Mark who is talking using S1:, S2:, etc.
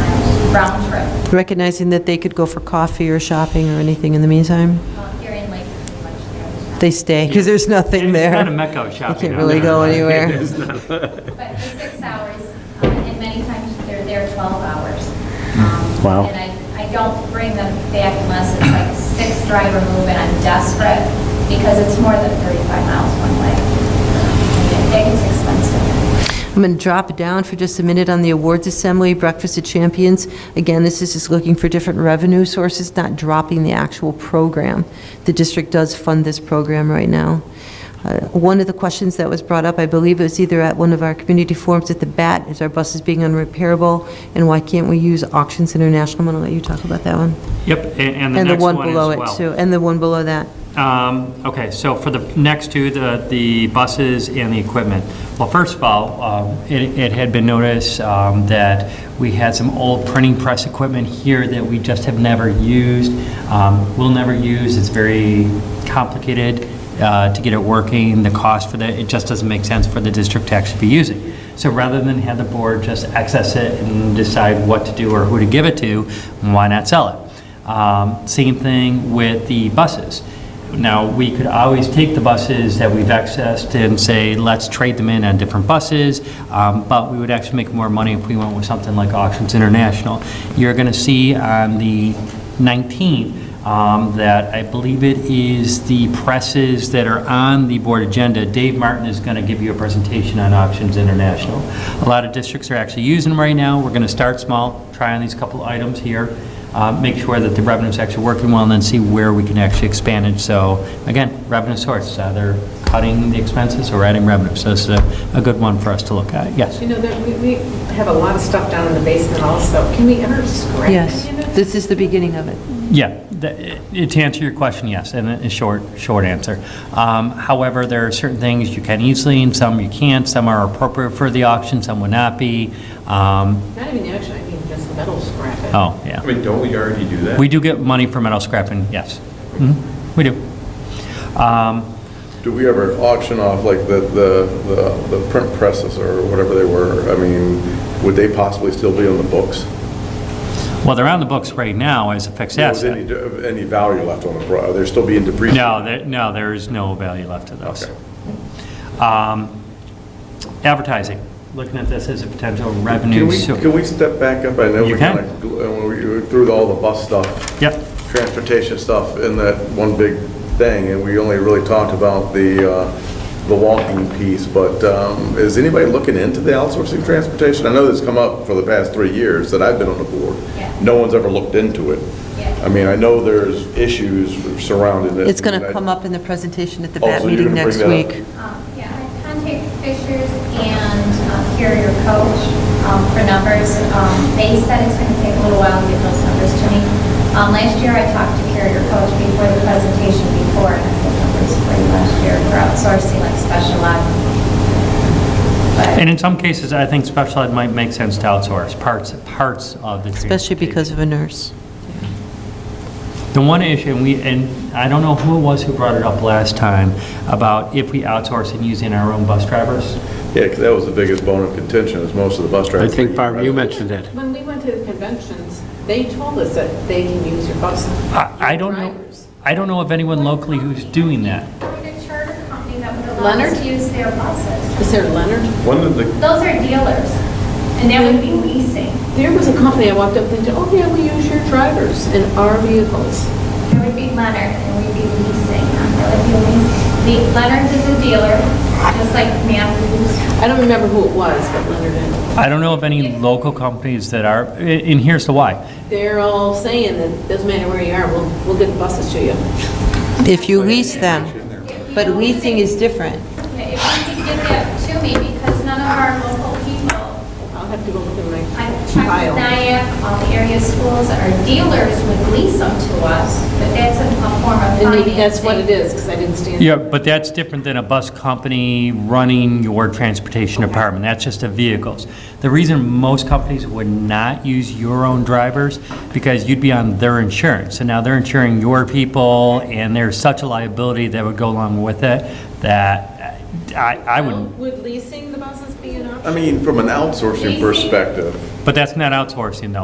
S1: round trip
S2: recognizing that they could go for coffee or shopping or anything in the meantime?
S1: um, here in Lake.
S2: They stay, because there's nothing there.
S3: It's not a mecca of shopping.
S2: They can't
S3: out
S2: really
S3: there.
S2: go anywhere.
S1: But the six hours, uh, and many times they're there 12 hours. Um,
S4: Wow.
S1: And I, I don't bring them back unless it's like six driver move and I'm desperate because it's more than 35 miles one way. It gets expensive.
S2: I'm going to drop down for just a minute on the awards assembly, Breakfast of Champions. Again, this is just looking for different revenue sources, not dropping the actual program. The district does fund this program right now. Uh, One of the questions that was brought up, I believe it was either at one of our community forums at the BAT, is our buses being unrepairable, and why can't we use Auctions International? I'm going to let you talk about that one.
S3: Yep, a- and the
S2: And the
S3: next one
S2: one
S3: as well.
S2: below it, too, and the one below that.
S3: Um, Okay, so for the next two, the, the buses and the equipment. Well, first of all, um, it, it had been noticed um, that we had some old printing press equipment here that we just have never used, um, will never use, it's very complicated uh, to get it working, the cost for that, it just doesn't make sense for the district to actually be using. So rather than have the board just access it and decide what to do or who to give it to, why not sell it? Um, Same thing with the buses. Now, we could always take the buses that we've accessed and say, let's trade them in on different buses, um, but we would actually make more money if we went with something like Auctions International. You're going to see on the 19th um, that I believe it is the presses that are on the board agenda. Dave Martin is going to give you a presentation on Auctions International. A lot of districts are actually using them right now. We're going to start small, try on these couple items here uh, make sure that the revenue's actually working well, and then see where we can actually expand it. So, again, revenue source, either cutting the expenses or adding revenue. So this is a, a good one for us to look at, yes.
S5: You know, that we, we have a lot of stuff down in the basement also. Can we ever scrap any
S2: Yes,
S5: of it?
S2: this is the beginning of it.
S3: Yeah, the- it- to answer your question, yes, and a short, short answer. Um, However, there are certain things you can easily, and some you can't, some are appropriate for the auction, some would not be. Um,
S5: Not even the auction, I mean, just the metal scrap. it.
S3: Oh, yeah.
S6: I mean, don't we already do that?
S3: We do get money for metal scrapping, yes. Mhm, We do. Um,
S7: Do we ever auction off like the, the, the the print presses or whatever they were? I mean, would they possibly still be on the books?
S3: Well, they're on the books right now as a fixed
S7: Is
S3: asset.
S7: any, any value left on the, pro- are there still being depreciated?
S3: No, there, no, there is no value left to those.
S7: Okay.
S3: Um, Advertising, looking at this as a potential
S7: Can
S3: revenue.
S7: we,
S3: source.
S7: can we step back up? I know
S3: You
S7: we uh,
S3: can.
S7: kind of, through all the bus stuff.
S3: Yep.
S7: Transportation stuff in that one big thing, and we only really talked about the, uh, the walking piece, but um, is anybody looking into the outsourcing transportation? I know this come up for the past three years that I've been on the board.
S1: Yeah.
S7: No one's ever looked into it.
S1: Yeah.
S7: I mean, I know there's issues surrounding it.
S2: It's going
S7: and
S2: to
S7: I-
S2: come up in the presentation at the
S7: Oh,
S2: BAT
S7: so you're
S2: meeting
S7: gonna
S2: next
S7: bring that
S2: week.
S7: up.
S1: Um, Yeah, I contacted Fishers and um, Carrier Coach um, for numbers. Um, They said it's going to take a little while to get those numbers to me. Um, Last year, I talked to Carrier Coach before the presentation before, and I had numbers for you last year for outsourcing like special ed.
S3: And
S1: But
S3: in some cases, I think special ed might make sense to outsource parts, parts of the.
S2: Especially
S3: transportation.
S2: because of a nurse.
S3: The one issue, and we, and I don't know who it was who brought it up last time, about if we outsource and using our own bus drivers.
S7: Yeah, 'cause that was the biggest bone of contention, is most of the bus
S4: I
S7: drivers.
S4: think, Barb, you mentioned it.
S5: When we went to the conventions, they told us that they can use your bus.
S3: I, I don't know,
S5: Drivers.
S3: I don't know of anyone locally who's doing that.
S1: Find a charter company that would allow us
S5: Leonard?
S1: to use their buses.
S5: Is there Leonard?
S6: One of the,
S1: Those are dealers, and that would be leasing.
S5: There was a company I walked up and said, oh yeah, we use your drivers in our vehicles.
S1: It would be Leonard, and we'd be leasing. That would be leasing. The- Leonard's is a dealer, just like Matthews.
S5: I don't remember who it was, but Leonard and,
S3: I don't know of any local companies that are, and and here's the why.
S5: they're all saying that doesn't matter where you are, we'll, we'll get the buses to you.
S2: If you lease them. But leasing is different.
S1: If you could get that to me, because none of our local people,
S5: I'll have to go look in my
S1: I checked
S5: file.
S1: with NIAC, all the area schools, our dealers would lease them to us, but that's a a form of
S5: And
S1: financing.
S5: maybe that's what it is, because I didn't stand.
S3: Yeah, but that's different than a bus company running your transportation department. That's just the vehicles. The reason most companies would not use your own drivers, because you'd be on their insurance. And now they're insuring your people, and there's such a liability that would go along with it that I, I wouldn't.
S5: Would leasing the buses be an option?
S7: I mean, from an outsourcing perspective,
S3: But that's not outsourcing, though.